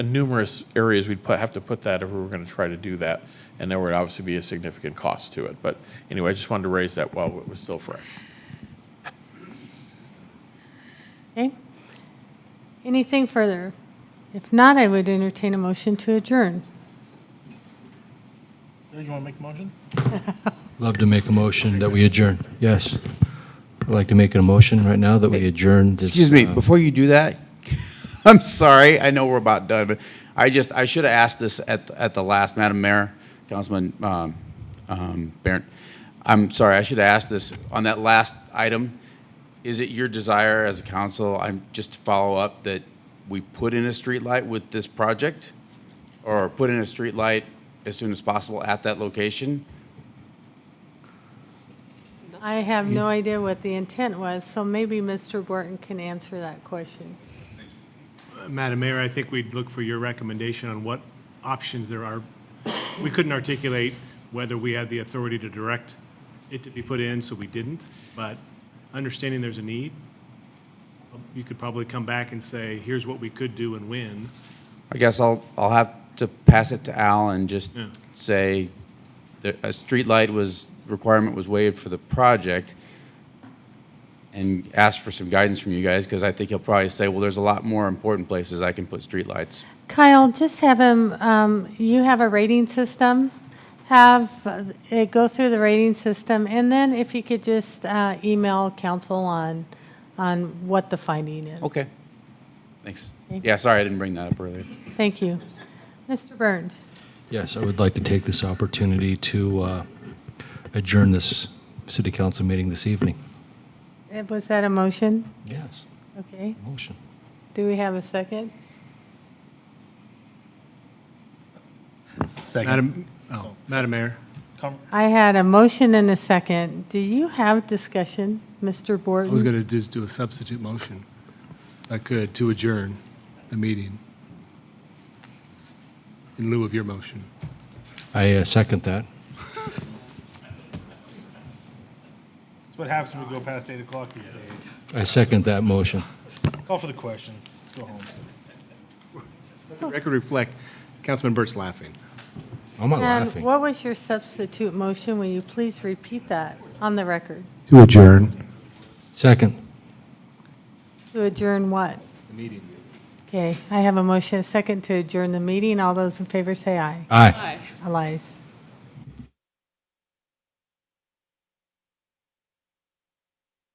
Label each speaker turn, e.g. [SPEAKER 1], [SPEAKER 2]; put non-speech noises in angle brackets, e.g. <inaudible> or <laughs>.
[SPEAKER 1] numerous areas we'd put, have to put that if we were going to try to do that. And there would obviously be a significant cost to it. But anyway, I just wanted to raise that while it was still fresh.
[SPEAKER 2] Okay. Anything further? If not, I would entertain a motion to adjourn.
[SPEAKER 3] You want to make a motion?
[SPEAKER 4] Love to make a motion that we adjourn, yes. I'd like to make a motion right now that we adjourn this.
[SPEAKER 5] Excuse me,
[SPEAKER 4] uh,
[SPEAKER 5] before you do that, <laughs> I'm sorry, I know we're about done, but I just, I should have asked this at, at the last, Madam Mayor, Councilman um, um, Barron. I'm sorry, I should have asked this on that last item. Is it your desire as a council, I'm, just to follow up, that we put in a streetlight with this project? Or put in a streetlight as soon as possible at that location?
[SPEAKER 2] I have no idea what the intent was, so maybe Mr. Borton can answer that question.
[SPEAKER 3] Madam Mayor, I think we'd look for your recommendation on what options there are. We couldn't articulate whether we had the authority to direct it to be put in, so we didn't. But understanding there's a need, you could probably come back and say, here's what we could do and when.
[SPEAKER 5] I guess I'll, I'll have to pass it to Al and just
[SPEAKER 3] Yeah.
[SPEAKER 5] say that a streetlight was, requirement was waived for the project and ask for some guidance from you guys, because I think he'll probably say, well, there's a lot more important places I can put streetlights.
[SPEAKER 2] Kyle, just have him, um, you have a rating system, have uh, it go through the rating system, and then if you could just uh, email council on, on what the finding is.
[SPEAKER 5] Okay. Thanks. Yeah, sorry, I didn't bring that up earlier.
[SPEAKER 2] Thank you. Mr. Burns?
[SPEAKER 4] Yes, I would like to take this opportunity to uh, adjourn this city council meeting this evening.
[SPEAKER 2] Uh, Was that a motion?
[SPEAKER 4] Yes,
[SPEAKER 2] Okay.
[SPEAKER 4] motion.
[SPEAKER 2] Do we have a second?
[SPEAKER 3] Madam, oh, Madam Mayor.
[SPEAKER 2] I had a motion and a second. Do you have discussion, Mr.
[SPEAKER 6] I was
[SPEAKER 2] Borton?
[SPEAKER 6] going to just do a substitute motion, if I could, to adjourn the meeting in lieu of your motion.
[SPEAKER 4] I uh, second that.
[SPEAKER 3] That's what happens when we go past eight o'clock these days.
[SPEAKER 4] I second that motion.
[SPEAKER 3] Call for the question. Let's go home. Let the record reflect, Councilman Burt's laughing.
[SPEAKER 4] I'm not
[SPEAKER 2] And
[SPEAKER 4] laughing.
[SPEAKER 2] what was your substitute motion? Will you please repeat that on the record?
[SPEAKER 6] To adjourn.
[SPEAKER 4] Second.
[SPEAKER 2] To adjourn what? The meeting. Okay, I have a motion, and a second to adjourn the meeting. All those in favor say aye.
[SPEAKER 4] Aye.
[SPEAKER 2] Allies.